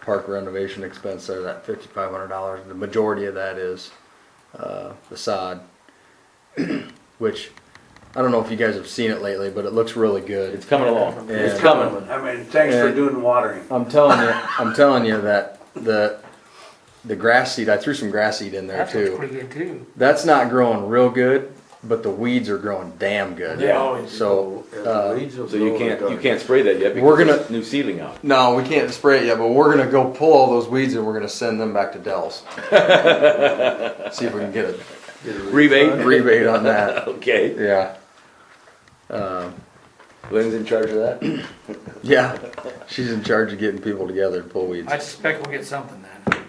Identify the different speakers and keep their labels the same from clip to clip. Speaker 1: park renovation expense there, that fifty-five hundred dollars, the majority of that is, uh, the sod. Which, I don't know if you guys have seen it lately, but it looks really good.
Speaker 2: It's coming along. It's
Speaker 1: Yeah.
Speaker 2: coming.
Speaker 3: I mean, thanks for
Speaker 1: Yeah.
Speaker 3: doing watering.
Speaker 1: I'm telling you, I'm telling you that the, the grass seed, I threw some grass seed in there
Speaker 4: That looks
Speaker 1: too.
Speaker 4: pretty good too.
Speaker 1: That's not growing real good, but the weeds are growing damn good.
Speaker 4: Yeah.
Speaker 1: So, uh,
Speaker 2: So you can't, you can't spray that yet
Speaker 1: We're
Speaker 2: because
Speaker 1: gonna-
Speaker 2: there's new seedling out.
Speaker 1: no, we can't spray it yet, but we're gonna go pull all those weeds and we're gonna send them back to Dell's. See if we can get a
Speaker 2: Rebate?
Speaker 1: rebate on that.
Speaker 2: Okay.
Speaker 1: Yeah,
Speaker 2: Lynn's in charge of that?
Speaker 1: yeah. She's in charge of getting people together to pull weeds.
Speaker 4: I suspect we'll get something then.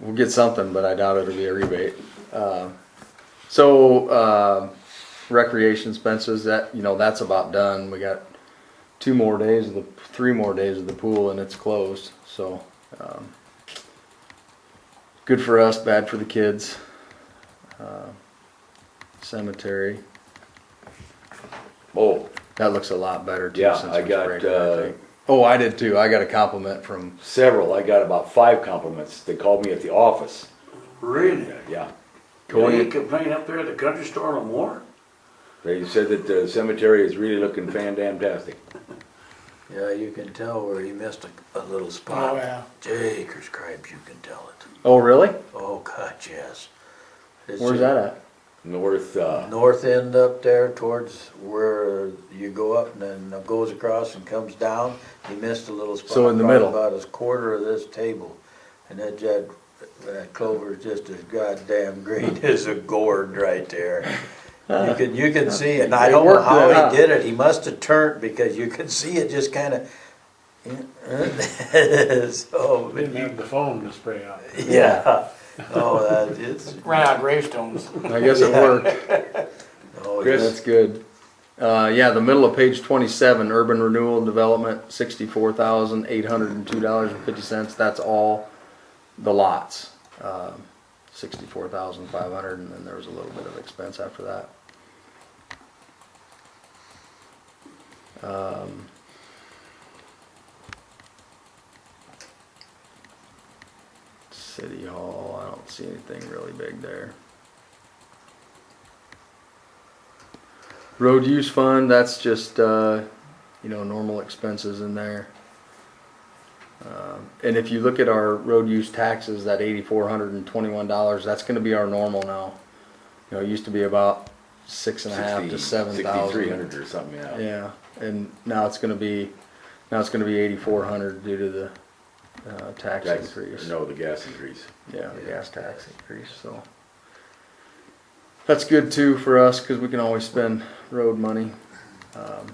Speaker 1: We'll get something, but I doubt it'll be a rebate. Um, So, um, recreation expenses, that, you know, that's about done. We got two more days of the, three more days of the pool and it's closed, so. um, Good for us, bad for the kids. Uh, Cemetery,
Speaker 2: Oh,
Speaker 1: that looks a lot better too.
Speaker 2: Yeah,
Speaker 1: since
Speaker 2: I
Speaker 1: we
Speaker 2: got,
Speaker 1: sprayed it, I
Speaker 2: uh,
Speaker 1: think. Oh, I did too. I got a compliment from,
Speaker 2: several. I got about five compliments. They called me at the office.
Speaker 3: Really?
Speaker 2: Yeah.
Speaker 3: Do you
Speaker 2: They-
Speaker 3: complain up there at the country store no more?
Speaker 2: They said that the cemetery is really looking fan-damn-tastic.
Speaker 5: Yeah, you can tell where he missed a, a little spot.
Speaker 4: Oh, yeah.
Speaker 5: Jakers cripes, you can tell it.
Speaker 1: oh, really?
Speaker 5: Oh, God, yes. It's
Speaker 1: Where's that at?
Speaker 2: North, uh,
Speaker 5: North end up there towards where you go up and then goes across and comes down. He missed a little spot.
Speaker 1: So in the
Speaker 5: probably
Speaker 1: middle.
Speaker 5: About a quarter of this table. And that, that, that clover is just as goddamn green as a gourd right there. You can, you can see it. And I
Speaker 1: They
Speaker 5: don't know
Speaker 1: worked that
Speaker 5: how
Speaker 1: out.
Speaker 5: he did it. He must have turned because you could see it just kind of. So, but
Speaker 6: Didn't
Speaker 5: you-
Speaker 6: have the foam to spray out.
Speaker 5: yeah. Oh, that is,
Speaker 4: Ran out of gravestones.
Speaker 1: I guess it worked.
Speaker 5: oh,
Speaker 2: Chris?
Speaker 1: That's good. Uh, yeah, the middle of page twenty-seven, urban renewal and development, sixty-four thousand, eight hundred and two dollars and fifty cents, that's all the lots. Um, sixty-four thousand, five hundred, and then there was a little bit of expense after that. Um, City Hall, I don't see anything really big there. Road use fund, that's just, uh, you know, normal expenses in there. Um, And if you look at our road use taxes, that eighty-four hundred and twenty-one dollars, that's gonna be our normal now. You know, it used to be about six and a half to seven
Speaker 2: Sixty-three
Speaker 1: thousand.
Speaker 2: hundred or something, yeah.
Speaker 1: Yeah, and now it's gonna be, now it's gonna be eighty-four hundred due to the, uh, tax
Speaker 2: Tax-
Speaker 1: increase.
Speaker 2: No, the gas increase.
Speaker 1: Yeah, the gas tax increase, so. That's good too for us, cause we can always spend road money. Um,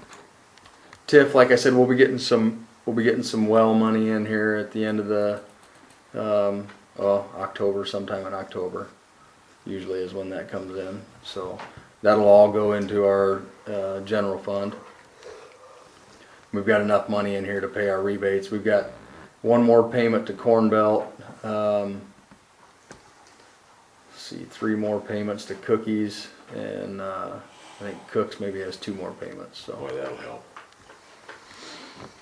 Speaker 1: TIF, like I said, we'll be getting some, we'll be getting some well money in here at the end of the, um, oh, October, sometime in October. Usually is when that comes in, so that'll all go into our, uh, general fund. We've got enough money in here to pay our rebates. We've got one more payment to Corn Belt. Um, let's see, three more payments to Cookies, and uh, I think Cooks maybe has two more payments.
Speaker 2: Boy,
Speaker 1: So
Speaker 2: that'll help.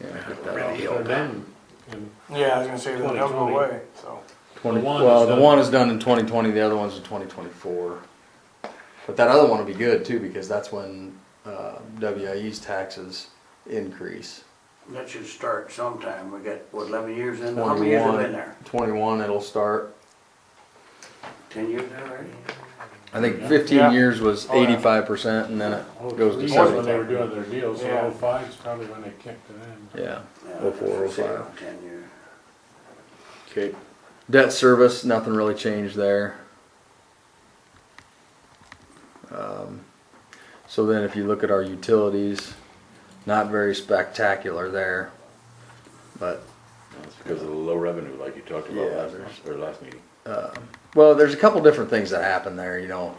Speaker 1: yeah, get that off.
Speaker 6: So then, and
Speaker 4: Yeah, I was gonna say that they'll go
Speaker 6: 2020.
Speaker 4: away, so.
Speaker 1: 20,
Speaker 6: The one
Speaker 1: well,
Speaker 6: is
Speaker 1: the
Speaker 6: done.
Speaker 1: one is done in 2020. The other one's in 2024. But that other one will be good too because that's when uh, WIE's taxes increase.
Speaker 3: That should start sometime. We got, what, eleven years in? How many years have been there?
Speaker 1: 21 it'll start.
Speaker 3: Ten years already?
Speaker 1: I think 15
Speaker 4: Yeah.
Speaker 1: years was
Speaker 4: Oh, yeah.
Speaker 1: 85% and then it
Speaker 6: oh,
Speaker 1: goes
Speaker 6: three
Speaker 1: to
Speaker 6: is
Speaker 1: 75.
Speaker 6: when they were doing their deal, so
Speaker 4: Yeah.
Speaker 6: 05 is probably when they kicked it in.
Speaker 1: Yeah.
Speaker 3: Yeah,
Speaker 1: Oh, four, oh,
Speaker 3: say
Speaker 1: five.
Speaker 3: about Ten years.
Speaker 2: Okay.
Speaker 1: Debt service, nothing really changed there. Um, So then if you look at our utilities, not very spectacular there. But,
Speaker 2: That's because of the low revenue, like you talked about
Speaker 1: Yeah,
Speaker 2: last,
Speaker 1: there's-
Speaker 2: or last meeting.
Speaker 1: well, there's a couple different things that happen there, you know.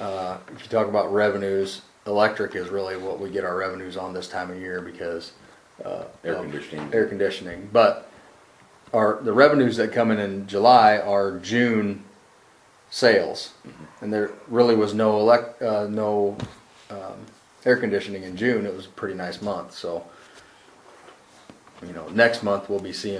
Speaker 1: Uh, If you talk about revenues, electric is really what we get our revenues on this time of year because
Speaker 2: Air
Speaker 1: Um,
Speaker 2: conditioning.
Speaker 1: air conditioning, but our, the revenues that come in in July are June sales. And there really was no elect, uh, no, um, air conditioning in June. It was a pretty nice month, so. You know, next month we'll be seeing